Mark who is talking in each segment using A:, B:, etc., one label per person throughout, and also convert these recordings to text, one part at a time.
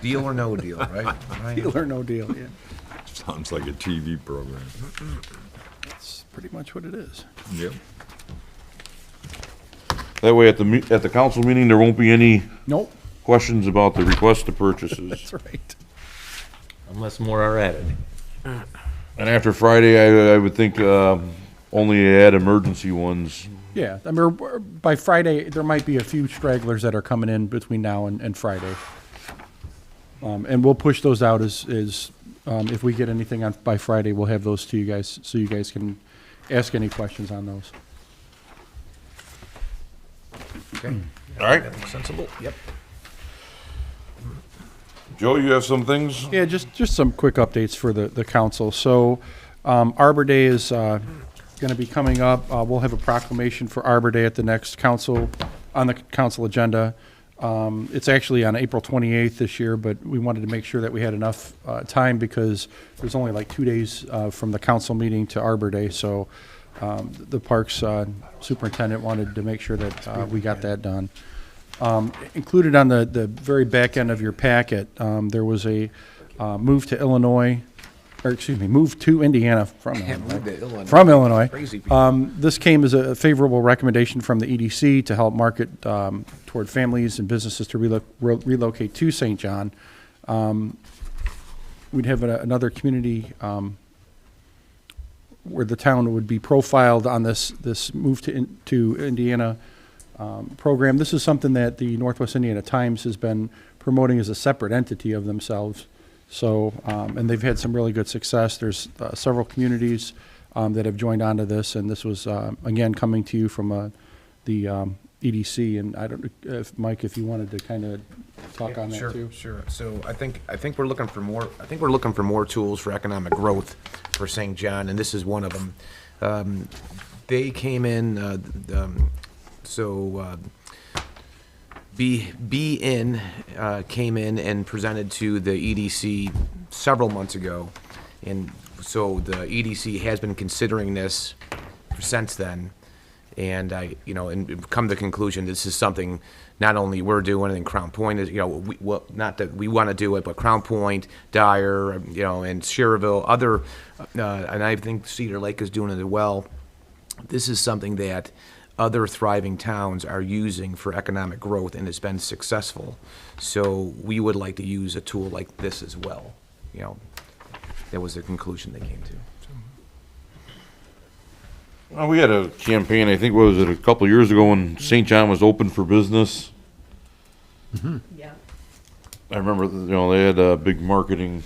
A: Deal or no deal, right? Ryan?
B: Deal or no deal, yeah.
C: Sounds like a TV program.
B: That's pretty much what it is.
C: Yep.
D: That way, at the, me- at the council meeting, there won't be any
B: Nope,
D: questions about the request to purchases.
B: that's right.
E: Unless more are added.
D: And after Friday, I, I would think, um, only add emergency ones.
B: Yeah, I mean, we're- by Friday, there might be a few stragglers that are coming in between now and, and Friday. Um, and we'll push those out as, as, um, if we get anything on, by Friday, we'll have those to you guys, so you guys can ask any questions on those.
A: Okay.
D: All right.
A: Sensible, yep.
D: Joe, you have some things?
B: Yeah, just, just some quick updates for the, the council. So, um, Arbor Day is, uh, gonna be coming up. Uh, we'll have a proclamation for Arbor Day at the next council, on the council agenda. Um, it's actually on April twenty-eighth this year, but we wanted to make sure that we had enough, uh, time because there's only like two days, uh, from the council meeting to Arbor Day, so, um, the parks, uh, superintendent wanted to make sure that, uh, we got that done. Um, Included on the, the very back end of your packet, um, there was a uh, move to Illinois, or excuse me, move to Indiana from
A: move to
B: Illinois.
A: Illinois.
B: From Illinois.
A: Crazy people.
B: Um, This came as a favorable recommendation from the EDC to help market um, toward families and businesses to relo- re- relocate to St. John. Um, We'd have a- another community um, where the town would be profiled on this, this move to, in- to Indiana um, program. This is something that the Northwest Indiana Times has been promoting as a separate entity of themselves. So, um, and they've had some really good success. There's uh, several communities um, that have joined onto this, and this was, uh, again, coming to you from uh, the um, EDC. And I don't, if, Mike, if you wanted to kind of talk on that
A: Sure,
B: too.
A: sure. So I think, I think we're looking for more, I think we're looking for more tools for economic growth for St. John, and this is one of them. Um, They came in, uh, um, so, uh, B, BN uh, came in and presented to the EDC several months ago. And so the EDC has been considering this since then. And I, you know, and we've come to the conclusion, this is something not only we're doing and Crown Point is, you know, we, well, not that we want to do it, but Crown Point, Dyer, you know, and Sherrville, other, uh, and I think Cedar Lake is doing it as well this is something that other thriving towns are using for economic growth and has been successful. So we would like to use a tool like this as well, you know. That was the conclusion they came to.
D: Well, Uh, we had a campaign, I think, what was it, a couple of years ago when St. John was open for business?
F: Yeah.
D: I remember, you know, they had a big marketing.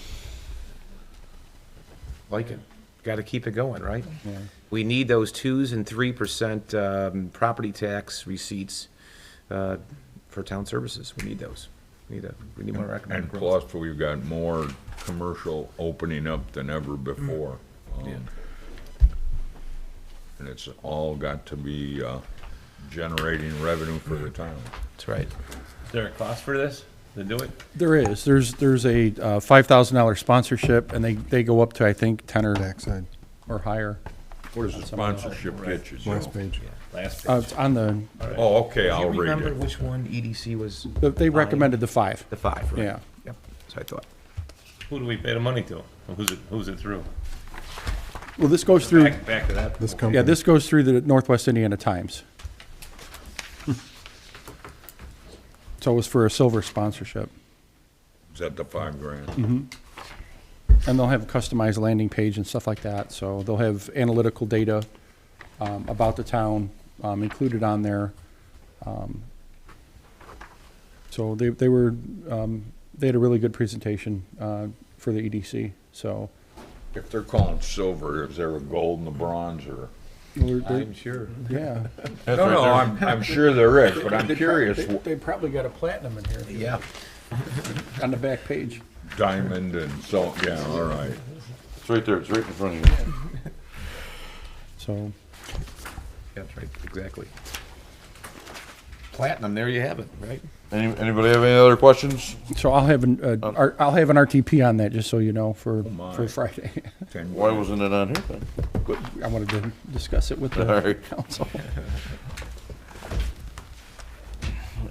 A: Like it. Got to keep it going, right? We need those twos and three percent um, property tax receipts uh, for town services. We need those. We need a, we need more
C: And
A: economic growth.
C: plus, we've got more commercial opening up than ever
A: Mm.
C: before. um, And it's all got to be, uh, generating revenue for the town.
A: That's right.
E: Is there a cost for this to do it?
B: There is, there's, there's a uh, $5,000 sponsorship, and they, they go up to, I think, 10 or,
G: backside,
B: or higher.
C: What is the sponsorship get you,
G: last
C: Joe?
G: page.
E: Last
B: Uh, it's On the,
C: Oh, okay,
A: Do
C: I'll
A: you
C: read
A: remember
C: it.
A: which one EDC was?
B: they recommended the five.
A: The five, right?
B: Yeah.
A: Yep, so I thought.
E: Who do we pay the money to? Who's it, who's it through?
B: Well, this goes through,
E: Back, back to that.
G: This
B: yeah,
G: company,
B: this goes through the Northwest Indiana Times. So it was for a silver sponsorship.
C: Is that the five grand?
A: Mm-hmm.
B: And they'll have a customized landing page and stuff like that, so they'll have analytical data um, about the town um, included on there. Um, So they, they were, um, they had a really good presentation uh, for the EDC, so.
C: If they're calling silver, is there a gold and a bronze or?
B: I'm
A: sure.
B: Yeah.
C: No, no, I'm, I'm sure there is, but I'm curious,
B: They- They probably got a platinum in here.
A: Yeah.
B: On the back page.
C: diamond and so, yeah, all right.
D: It's right there, it's right in front of you.
B: So,
A: That's right, exactly. Platinum, there you have it, right?
D: Any, anybody have any other questions?
B: so I'll have an, uh, R- I'll have an RTP on that, just so you know, for,
C: Um, oh my.
B: for Friday.
C: Ten
D: Why wasn't it on here then?
B: But I wanted to discuss it with
D: All
B: the
D: right.
B: council.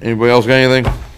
D: Anybody else got anything?